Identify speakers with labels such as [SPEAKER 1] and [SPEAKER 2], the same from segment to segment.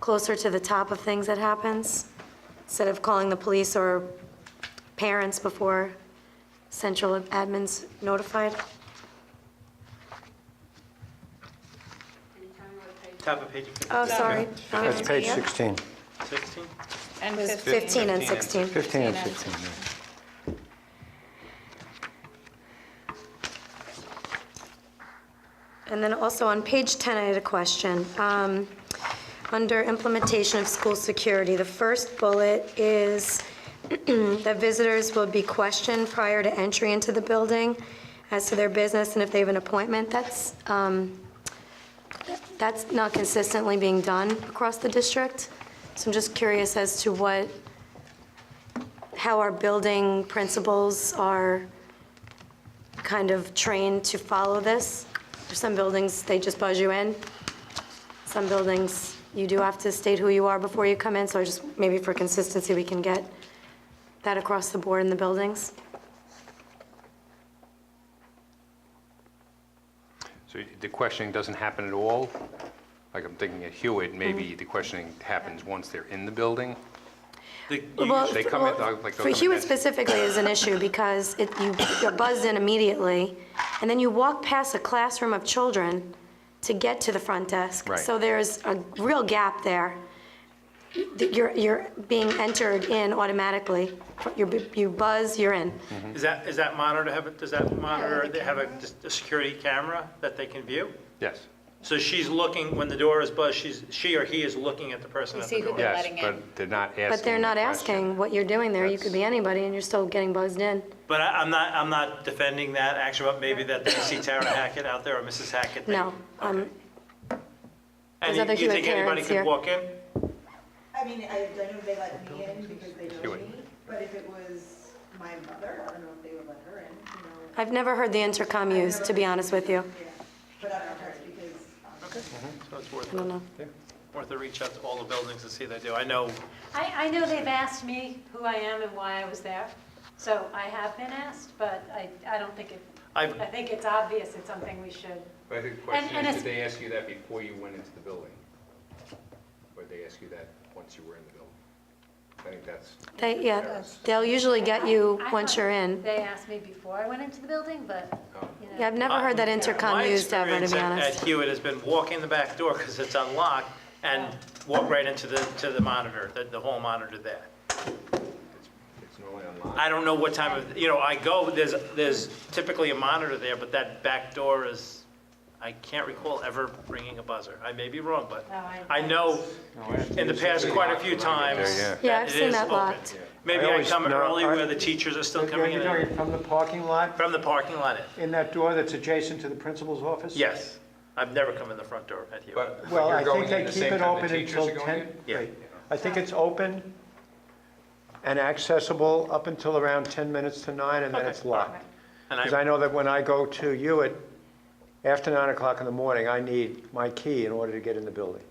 [SPEAKER 1] closer to the top of things that happens, instead of calling the police or parents before central admin's notified?
[SPEAKER 2] Top of page fifteen.
[SPEAKER 1] Oh, sorry.
[SPEAKER 3] That's page 16,
[SPEAKER 2] Sixteen?
[SPEAKER 4] And
[SPEAKER 1] It was
[SPEAKER 4] 15.
[SPEAKER 1] 15 and 16.
[SPEAKER 3] 15 and 16.
[SPEAKER 4] 16.
[SPEAKER 1] And then also on page 10, I had a question. Um, Under implementation of school security, the first bullet is that visitors will be questioned prior to entry into the building as to their business and if they have an appointment. That's, um, that's not consistently being done across the district. So I'm just curious as to what, how our building principals are kind of trained to follow this. For some buildings, they just buzz you in. Some buildings, you do have to state who you are before you come in, so I just, maybe for consistency, we can get that across the board in the buildings.
[SPEAKER 5] So the questioning doesn't happen at all? Like, I'm thinking at Hewitt,
[SPEAKER 1] Mm.
[SPEAKER 5] maybe the questioning happens once they're in the building?
[SPEAKER 2] The-
[SPEAKER 1] Well,
[SPEAKER 5] They come in, like, they'll
[SPEAKER 1] For
[SPEAKER 5] come in
[SPEAKER 1] Hewitt
[SPEAKER 5] as-
[SPEAKER 1] specifically is an issue because it, you, you're buzzed in immediately, and then you walk past a classroom of children to get to the front desk.
[SPEAKER 5] Right.
[SPEAKER 1] So there's a real gap there. That You're, you're being entered in automatically. You're, bu- you buzz, you're in.
[SPEAKER 5] Mm-hmm.
[SPEAKER 2] Is that, is that monitor, have, a- does that monitor, they have a, just a security camera that they can view?
[SPEAKER 5] Yes,
[SPEAKER 2] So she's looking, when the door is buzzed, she's, she or he is looking at the person
[SPEAKER 4] You
[SPEAKER 2] at the
[SPEAKER 4] see who
[SPEAKER 2] door?
[SPEAKER 4] the-
[SPEAKER 5] yes,
[SPEAKER 4] letting in.
[SPEAKER 5] but they're not asking.
[SPEAKER 1] But they're not
[SPEAKER 5] the question.
[SPEAKER 1] asking what you're doing there. You could be anybody, and you're still getting buzzed in.
[SPEAKER 2] But I, I'm not, I'm not defending that action, but maybe that they see Tara Hackett out there or Mrs. Hackett. they-
[SPEAKER 1] No, um,
[SPEAKER 2] Okay.
[SPEAKER 1] There's
[SPEAKER 2] And you
[SPEAKER 1] other
[SPEAKER 2] you think
[SPEAKER 1] Hewitt
[SPEAKER 2] anybody
[SPEAKER 1] parents
[SPEAKER 2] could
[SPEAKER 1] here.
[SPEAKER 2] walk in?
[SPEAKER 6] I mean, I don't know if they let me in because they know
[SPEAKER 5] Doing.
[SPEAKER 6] me, but if it was my mother, I don't know if they would let her in, you know,
[SPEAKER 1] I've never heard the intercom used, to be honest with you.
[SPEAKER 6] yeah. But I don't know, because, um,
[SPEAKER 2] So it's worth,
[SPEAKER 1] I don't know.
[SPEAKER 2] worth a reach out to all the buildings and see if they do. I know
[SPEAKER 7] I, I know they've asked me who I am and why I was there, so I have been asked, but I, I don't think it,
[SPEAKER 2] I've,
[SPEAKER 7] I think it's obvious it's something we should.
[SPEAKER 5] But I think the
[SPEAKER 7] And-
[SPEAKER 5] question
[SPEAKER 7] and
[SPEAKER 5] is,
[SPEAKER 7] it's-
[SPEAKER 5] did they ask you that before you went into the building? Or did they ask you that once you were in the building? I think that's,
[SPEAKER 1] They, yeah, they'll usually get you
[SPEAKER 7] I- I
[SPEAKER 1] once
[SPEAKER 7] thought
[SPEAKER 1] you're in.
[SPEAKER 7] They asked me before I went into the building, but,
[SPEAKER 5] um,
[SPEAKER 7] you know.
[SPEAKER 1] Yeah, I've never heard that intercom
[SPEAKER 2] My
[SPEAKER 1] used ever, to
[SPEAKER 2] experience
[SPEAKER 1] be
[SPEAKER 2] at-
[SPEAKER 1] honest.
[SPEAKER 2] At Hewitt has been walk in the back door because it's unlocked and walk right into the, to the monitor, the, the whole monitor there.
[SPEAKER 5] it's it's normally online.
[SPEAKER 2] I don't know what time of, you know, I go, there's, there's typically a monitor there, but that back door is, I can't recall ever ringing a buzzer. I may be wrong, but
[SPEAKER 7] No, I-
[SPEAKER 2] I know in the past quite a few times
[SPEAKER 5] Yeah,
[SPEAKER 1] Yeah,
[SPEAKER 2] that
[SPEAKER 1] I've
[SPEAKER 2] it
[SPEAKER 1] seen
[SPEAKER 2] is
[SPEAKER 1] that
[SPEAKER 2] open.
[SPEAKER 1] locked.
[SPEAKER 2] Maybe
[SPEAKER 3] I
[SPEAKER 2] I
[SPEAKER 3] always-
[SPEAKER 2] come
[SPEAKER 3] no,
[SPEAKER 2] early
[SPEAKER 3] I-
[SPEAKER 2] where the teachers are still coming
[SPEAKER 3] You're talking
[SPEAKER 2] in
[SPEAKER 3] from the parking lot,
[SPEAKER 2] from the parking lot in.
[SPEAKER 3] in that door that's adjacent to the principal's office?
[SPEAKER 2] Yes, I've never come in the front door at Hewitt.
[SPEAKER 5] But but
[SPEAKER 3] Well,
[SPEAKER 5] you're
[SPEAKER 3] I
[SPEAKER 5] going
[SPEAKER 3] think
[SPEAKER 5] in
[SPEAKER 3] they
[SPEAKER 5] the
[SPEAKER 3] keep
[SPEAKER 5] same
[SPEAKER 3] it
[SPEAKER 5] time the
[SPEAKER 3] open
[SPEAKER 5] teachers
[SPEAKER 3] until
[SPEAKER 5] are going
[SPEAKER 3] 10.
[SPEAKER 5] in?
[SPEAKER 2] Yeah.
[SPEAKER 3] right. I think it's open and accessible up until around 10 minutes to 9, and then it's locked.
[SPEAKER 2] And
[SPEAKER 3] Because I
[SPEAKER 2] I,
[SPEAKER 3] know that when I go to you at, after 9 o'clock in the morning, I need my key in order to get in the building.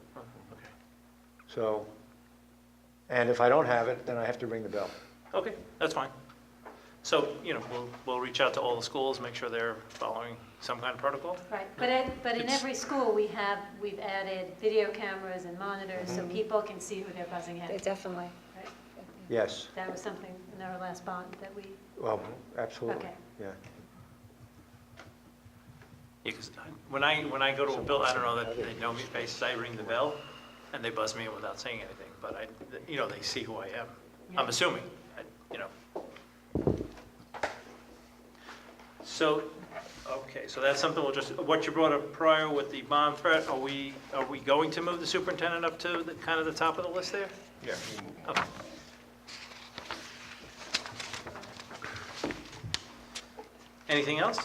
[SPEAKER 3] So, and if I don't have it, then I have to ring the bell.
[SPEAKER 2] okay, that's fine. So, you know, we'll, we'll reach out to all the schools, make sure they're following some kind of protocol.
[SPEAKER 7] Right, but at, but in
[SPEAKER 2] It's-
[SPEAKER 7] every school, we have, we've added video cameras and monitors, so
[SPEAKER 2] Mm-hmm.
[SPEAKER 7] people can see who they're buzzing at.
[SPEAKER 4] Definitely.
[SPEAKER 7] right?
[SPEAKER 3] Yes,
[SPEAKER 7] That was something in our last bond that we,
[SPEAKER 3] well, absolutely,
[SPEAKER 7] Okay.
[SPEAKER 3] yeah.
[SPEAKER 2] Yeah, 'cause I- when I, when I go to a bill, I don't know that they know me faces, I ring the bell, and they buzz me in without saying anything, but I, you know, they see who I am. I'm assuming, I- you know. So, okay, so that's something we'll just, what you brought up prior with the bomb threat, are we, are we going to move the superintendent up to the, kind of the top of the list there?
[SPEAKER 5] Yeah, we can move on.
[SPEAKER 2] Okay. Anything else?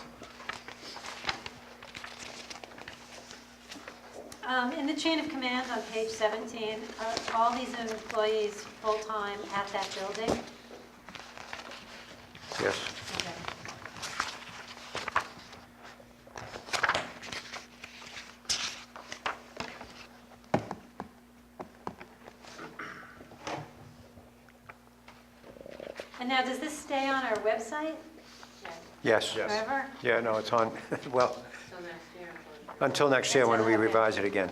[SPEAKER 7] Um, In the chain of command on page 17, are all these employees full-time at that building?
[SPEAKER 3] Yes.
[SPEAKER 7] Okay. And now, does this stay on our website
[SPEAKER 3] Yes.
[SPEAKER 7] forever?
[SPEAKER 3] Yeah, no, it's on, well, until next year when we revise it again.